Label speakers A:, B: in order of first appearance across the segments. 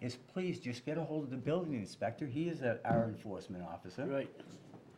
A: is please just get a hold of the building inspector. He is a- our enforcement officer.
B: Right.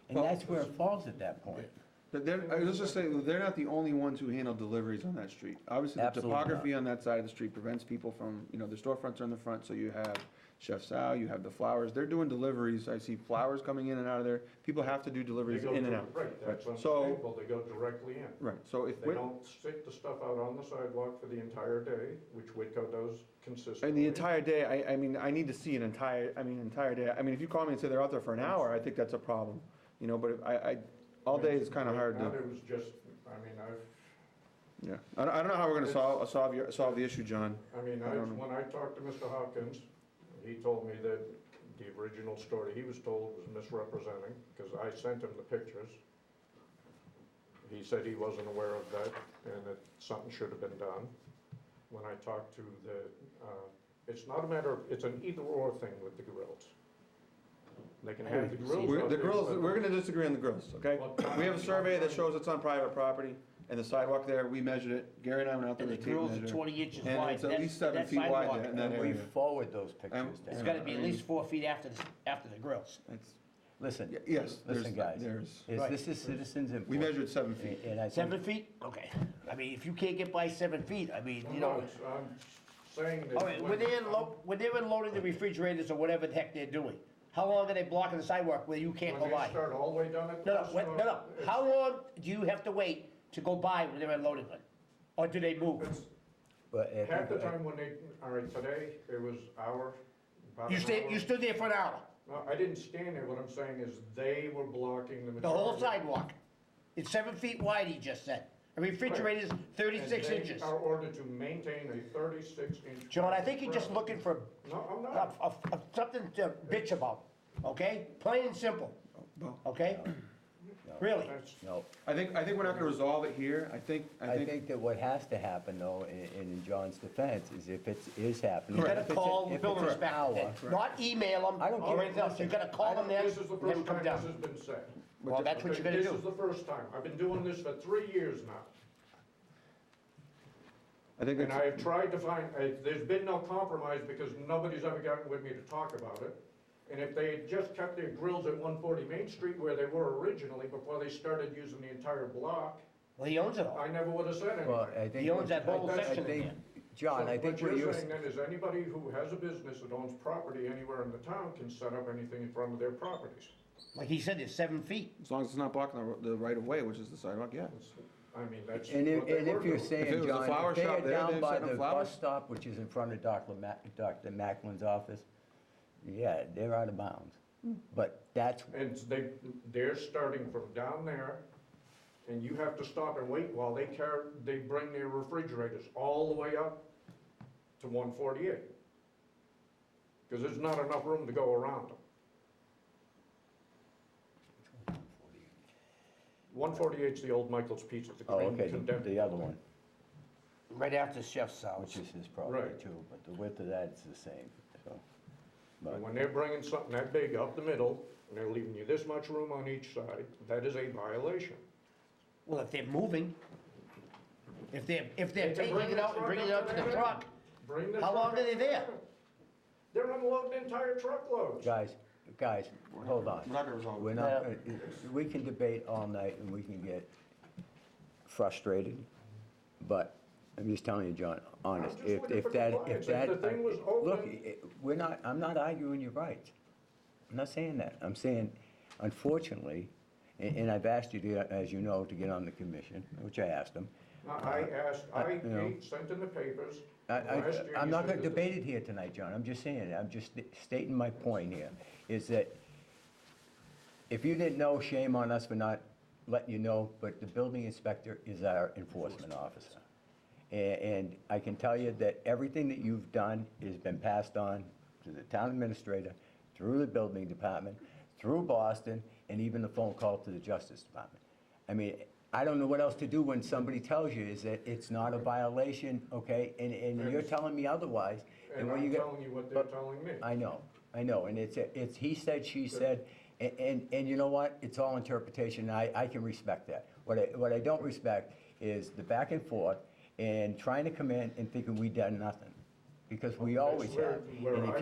A: And that's where it falls at that point.
C: But they're, I was just saying, they're not the only ones who handle deliveries on that street. Obviously, the
A: Absolutely not.
C: topography on that side of the street prevents people from, you know, the storefronts are in the front, so you have Chef Sal, you have the flowers, they're doing deliveries, I see flowers coming in and out of there, people have to do
D: They
C: deliveries
D: go
C: in and
D: dir-
C: out.
D: Right, that's
C: So,
D: unstable, they go directly in.
C: right, so if,
D: They
C: Whit-
D: don't stick the stuff out on the sidewalk for the entire day, which Whitco does consistently.
C: and the entire day, I, I mean, I need to see an entire, I mean, entire day, I mean, if you call me and say they're out there for an hour, I think that's a problem. You know, but if I, I, all day is kinda
D: Right
C: hard
D: now,
C: to,
D: It was just, I mean, I've,
C: yeah. I don't, I don't know how we're gonna solve, solve your, solve the issue, John.
D: I mean,
C: I
D: I,
C: don't know.
D: when I talked to Mr. Hawkins, he told me that the original story he was told was misrepresenting, because I sent him the pictures. He said he wasn't aware of that, and that something should have been done. When I talked to the, uh, it's not a matter of, it's an either-or thing with the grills. They can have the grills.
C: We're,
D: out
C: the
D: there,
C: grills,
D: but-
C: we're gonna disagree on the grills, okay? We have a survey that shows it's on private property, and the sidewalk there, we measured it, Gary and I went out there
B: And the
C: with a tape
B: grills are
C: measure.
B: twenty inches
C: And
B: wide,
C: it's at
B: that's,
C: least seven
B: that
C: feet wide
B: sidewalk,
C: there. in that
A: And we
C: area. Um,
A: forward those pictures to
B: it's
A: him.
B: gotta be at least four feet after, the after the grills.
C: It's-
A: Listen,
C: y- Yes, there's,
A: listen, guys.
C: there's,
A: Is
B: Right.
A: This is citizens input.
C: we measured seven feet.
A: And I think,
B: Seven feet, okay, I mean, if you can't get by seven feet, I mean, you
D: No,
B: know.
D: it's- I'm saying that.
B: All right, when
D: when-
B: they're lo, when they're unloading the refrigerators or whatever the heck they're doing, how long are they blocking the sidewalk where you can't go
D: When they
B: by?
D: start all the way down at.
B: No, no,
D: Costa,
B: wait, no, no,
D: it's-
B: how long do you have to wait to go by when they're unloading one? Or do they move?
D: it's-
A: but I
D: Half the
A: think-
D: time when they, all right, today, it was hour, about
B: You
D: an
B: stayed, you
D: hour.
B: stood there for an hour,
D: No, I didn't stand there, what I'm saying is they were blocking the.
B: the whole
D: majority.
B: sidewalk. It's seven feet wide, he just said. A refrigerator's
D: And
B: thirty-six
D: they
B: inches.
D: Are ordered to maintain a thirty-six inch.
B: John, I think you're just looking for
D: No, I'm
B: a-
D: not,
B: a- a- something to bitch about, okay? Plain and simple, okay?
D: uh,
B: Really?
D: that's,
A: No,
C: I think, I think we're not gonna resolve it here, I think, I
A: I
C: think,
A: think that what has to happen though, in, in John's defense, is if it is happening.
B: You
A: if
B: gotta
A: it's a-
B: call
A: if
B: the
A: it's
B: building
A: an
B: inspector,
A: hour-
B: then. not email them
A: I don't
B: or
A: care.
B: anything else, you gotta
D: I
B: call them
D: don't-
B: there,
D: this is the
B: have them
D: first time
B: come
D: this has
B: down.
D: been said.
B: Well, that's what
D: Okay,
B: you're gonna
D: This is
B: do.
D: the first time, I've been doing this for three years now,
C: I think
D: and
C: it's,
D: I have tried to find, I- there's been no compromise because nobody's ever gotten with me to talk about it. And if they had just kept their grills at one forty Main Street where they were originally, before they started using the entire block,
B: Well, he owns it all.
D: I never would have said
A: Well,
D: anything.
A: I think.
B: He owns that
A: I-
B: whole
A: I
B: section
A: think-
B: there.
A: John,
D: So
A: I think what you're,
D: What you're saying then is anybody who has a business that owns property anywhere in the town can set up anything in front of their properties.
B: Like he said, it's seven feet.
C: as long as it's not blocking the, ro- the right of way, which is the sidewalk, yeah.
D: It's- I mean, that's what
A: and
D: they
A: if, and
D: were
A: if you're
D: doing.
C: If it
A: saying,
C: was a
A: John,
C: flower
A: if they
C: shop
A: are
C: there,
A: down
C: they'd
A: by
C: send them
A: the
C: flowers?
A: bus stop, which is in front of Dr. Mac, Dr. Macklin's office, yeah, they're out of bounds. But that's,
D: And they, they're starting from down there, and you have to stop and wait while they car, they bring their refrigerators all the way up to one forty-eight. Cause there's not enough room to go around them. One forty-eight's the old Michael's Pizza, the
A: oh,
D: con-
A: okay, the-
D: condemned.
A: the other one,
B: Right after Chef's house.
A: which is his property
D: Right.
A: too, but the width of that is the same, so.
D: And When they're bringing something that big up the middle, and they're leaving you this much room on each side, that is a violation.
B: Well, if they're moving, if they're, if they're
D: They can
B: taking
D: bring
B: it
D: the
B: out and
D: truck
B: bringing it
D: up
B: out to the
D: there.
B: truck,
D: Bring the
B: How
D: truck
B: long are they
D: up.
B: there?
D: They're unloading entire truckloads.
A: Guys, guys, hold on.
C: We're not gonna resolve it.
A: We're not, gonna- we can debate all night and we can get frustrated, but I'm just telling you, John, honest,
D: just
A: if,
D: looking for
A: if that,
D: compliance.
A: if
D: If
A: that.
D: the thing was
A: Look,
D: open-
A: i- we're not, I'm not arguing your rights. I'm not saying that. I'm saying, unfortunately, and, and I've asked you to, as you know, to get on the commission, which I asked them.
D: Now, I asked,
A: I-
D: I
A: you know.
D: ate- sent in the papers.
A: I,
D: last
A: I,
D: year,
A: I'm
D: you
A: not gonna
D: said that-
A: debate it here tonight, John, I'm just saying, I'm just stating my point here, is that if you didn't know, shame on us for not letting you know, but the building inspector is our enforcement officer. A- And I can tell you that everything that you've done has been passed on to the town administrator, through the building department, through Boston, and even the phone call to the Justice Department. I mean, I don't know what else to do when somebody tells you is that it's not a violation, okay? And, and you're telling me otherwise, and
D: And
A: what you
D: I'm
A: get.
D: telling you what they're telling me.
A: I know, I know, and it's, it's he said, she said, a- and, and you know what? It's all interpretation, I, I can respect that. What I, what I don't respect is the back and forth and trying to come in and thinking we done nothing, because we
D: Well,
A: always
D: that's
A: have.
D: where- where
A: And if
D: I